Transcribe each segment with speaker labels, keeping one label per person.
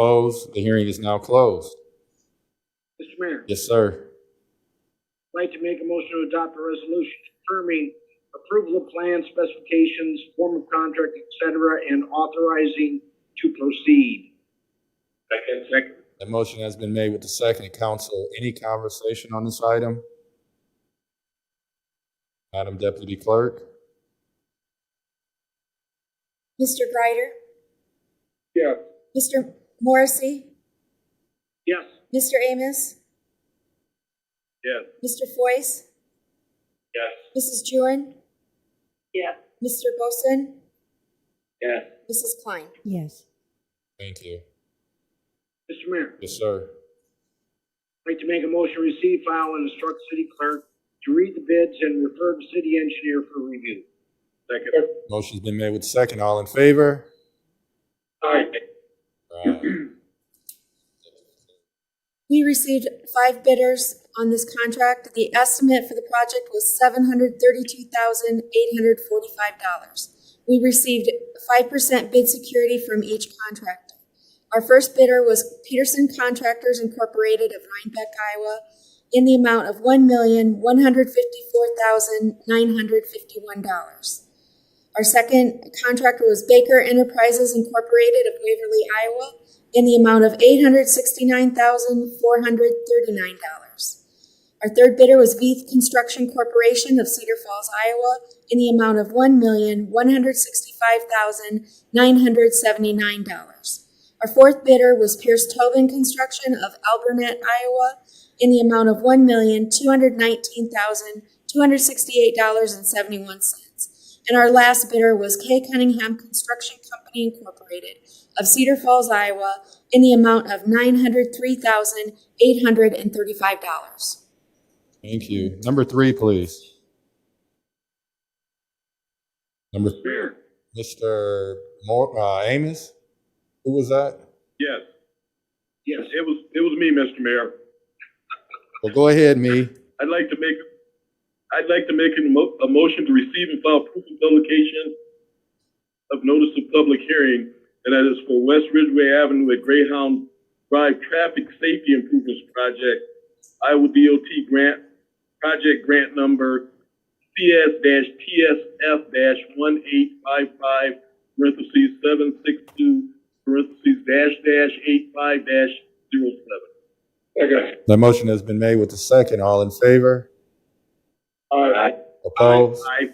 Speaker 1: Opposed? The hearing is now closed.
Speaker 2: Mr. Mayor,
Speaker 1: Yes, sir.
Speaker 2: I'd like to make a motion to adopt a resolution confirming approval of plan specifications, form of contract, et cetera, and authorizing to proceed. Second. Second.
Speaker 1: The motion has been made with the second. Council, any conversation on this item? Madam Deputy Clerk?
Speaker 3: Mr. Greider,
Speaker 2: Yeah.
Speaker 3: Mr. Morrissey,
Speaker 2: Yes.
Speaker 3: Mr. Amos,
Speaker 2: Yes.
Speaker 3: Mr. Foyce,
Speaker 2: Yes.
Speaker 3: Mrs. Jewin,
Speaker 2: Yes.
Speaker 3: Mr. Bosin,
Speaker 2: Yes.
Speaker 3: Mrs. Klein.
Speaker 4: yes,
Speaker 1: Thank you.
Speaker 2: Mr. Mayor,
Speaker 1: Yes, sir.
Speaker 2: I'd like to make a motion to receive, file, and instruct city clerk to read the bids and refer to city engineer for review. Second.
Speaker 1: Motion's been made with the second. All in favor?
Speaker 2: Aye.
Speaker 1: Aye.
Speaker 3: We received five bidders on this contract. The estimate for the project was seven hundred thirty-two thousand eight hundred forty-five dollars. We received five percent bid security from each contractor. Our first bidder was Peterson Contractors Incorporated of Rhinebeck, Iowa, in the amount of one million one hundred fifty-four thousand nine hundred fifty-one dollars. Our second contractor was Baker Enterprises Incorporated of Waverly, Iowa, in the amount of eight hundred sixty-nine thousand, four hundred thirty-nine dollars. Our third bidder was Veith Construction Corporation of Cedar Falls, Iowa, in the amount of one million, one hundred sixty-five thousand, nine hundred seventy-nine dollars. Our fourth bidder was Pierce Tobin Construction of Albernette, Iowa, in the amount of one million, two hundred nineteen thousand, two hundred sixty-eight dollars and seventy-one cents. And our last bidder was K Cunningham Construction Company Incorporated of Cedar Falls, Iowa, in the amount of nine hundred three thousand eight hundred and thirty-five dollars.
Speaker 1: Thank you. Number three, please. Number,
Speaker 2: Mayor.
Speaker 1: Mr. Mor, uh, Amos? Who was that?
Speaker 5: Yes,
Speaker 2: Yes.
Speaker 5: it was, it was me, Mr. Mayor.
Speaker 1: Well, go ahead, me.
Speaker 5: I'd like to make, I'd like to make a mo- a motion to receive and file proof of publication of notice of public hearing, and that is for West Ridgeway Avenue at Greyhound Drive Traffic Safety Improvements Project, Iowa DOT grant, project grant number CS TSF one eight five five, parentheses, seven six two, parentheses, dash dash eight five dash zero seven.
Speaker 2: Okay.
Speaker 1: The motion has been made with the second. All in favor?
Speaker 2: All right.
Speaker 1: Opposed?
Speaker 5: Aye.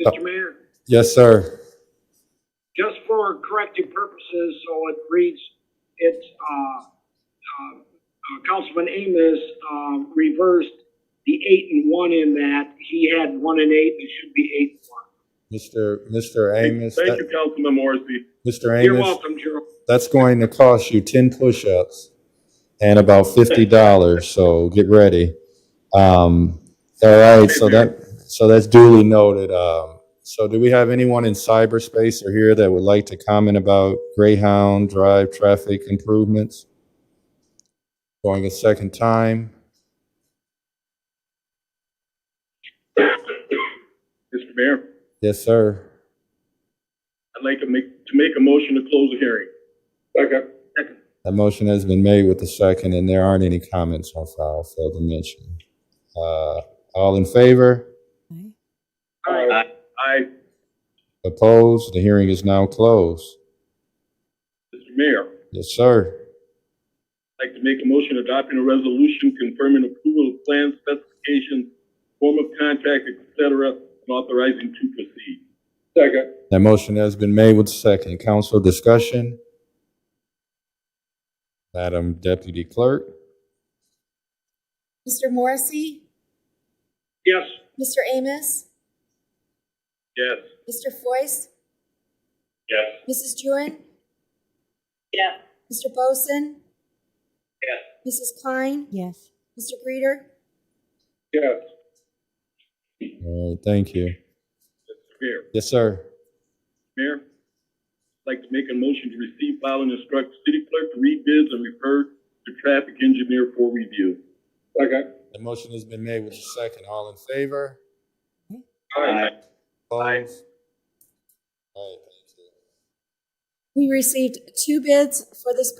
Speaker 2: Mr. Mayor.
Speaker 1: Yes, sir.
Speaker 2: just for corrective purposes, so it reads, it's, uh, uh, uh, Councilman Amos, um, reversed the eight and one in that. He had one and eight, it should be eight and one.
Speaker 1: Mr. Mr. Amos,
Speaker 5: Thank you,
Speaker 1: that-
Speaker 5: Councilman Morrissey.
Speaker 1: Mr.
Speaker 2: You're
Speaker 1: Amos,
Speaker 2: welcome, Gerald.
Speaker 1: that's going to cost you ten push-ups and about fifty dollars, so get ready. Um, all right, so that, so that's duly noted. Um, so do we have anyone in cyberspace or here that would like to comment about Greyhound Drive traffic improvements? Going a second time?
Speaker 5: Mr. Mayor,
Speaker 1: Yes, sir.
Speaker 5: I'd like to make, to make a motion to close the hearing. Second. Second.
Speaker 1: That motion has been made with the second, and there aren't any comments on file, failed to mention. Uh, all in favor?
Speaker 4: aye,
Speaker 5: Aye. Aye,
Speaker 1: Opposed? The hearing is now closed.
Speaker 5: Mr. Mayor,
Speaker 1: Yes, sir.
Speaker 5: I'd like to make a motion adopting a resolution confirming approval of plan specifications, form of contract, et cetera, and authorizing to proceed. Second.
Speaker 1: That motion has been made with the second. Council discussion? Madam Deputy Clerk?
Speaker 3: Mr. Morrissey,
Speaker 2: Yes,
Speaker 3: Mr. Amos,
Speaker 5: Yes.
Speaker 3: Mr. Foyce,
Speaker 5: Yes.
Speaker 3: Mrs. Jewin.
Speaker 2: Yeah.
Speaker 3: Mr. Bosin.
Speaker 2: Yes.
Speaker 3: Mrs. Klein,
Speaker 4: yes,
Speaker 3: Mr. Greider,
Speaker 5: Yes.
Speaker 1: All right, thank you.
Speaker 5: Mr. Mayor,
Speaker 1: Yes, sir.
Speaker 5: Mayor, I'd like to make a motion to receive, file, and instruct city clerk to read bids and refer to traffic engineer for review. Second.
Speaker 1: The motion has been made with the second. All in favor?
Speaker 5: Aye.
Speaker 1: Opposed? All right, thank you.
Speaker 3: We received two bids for this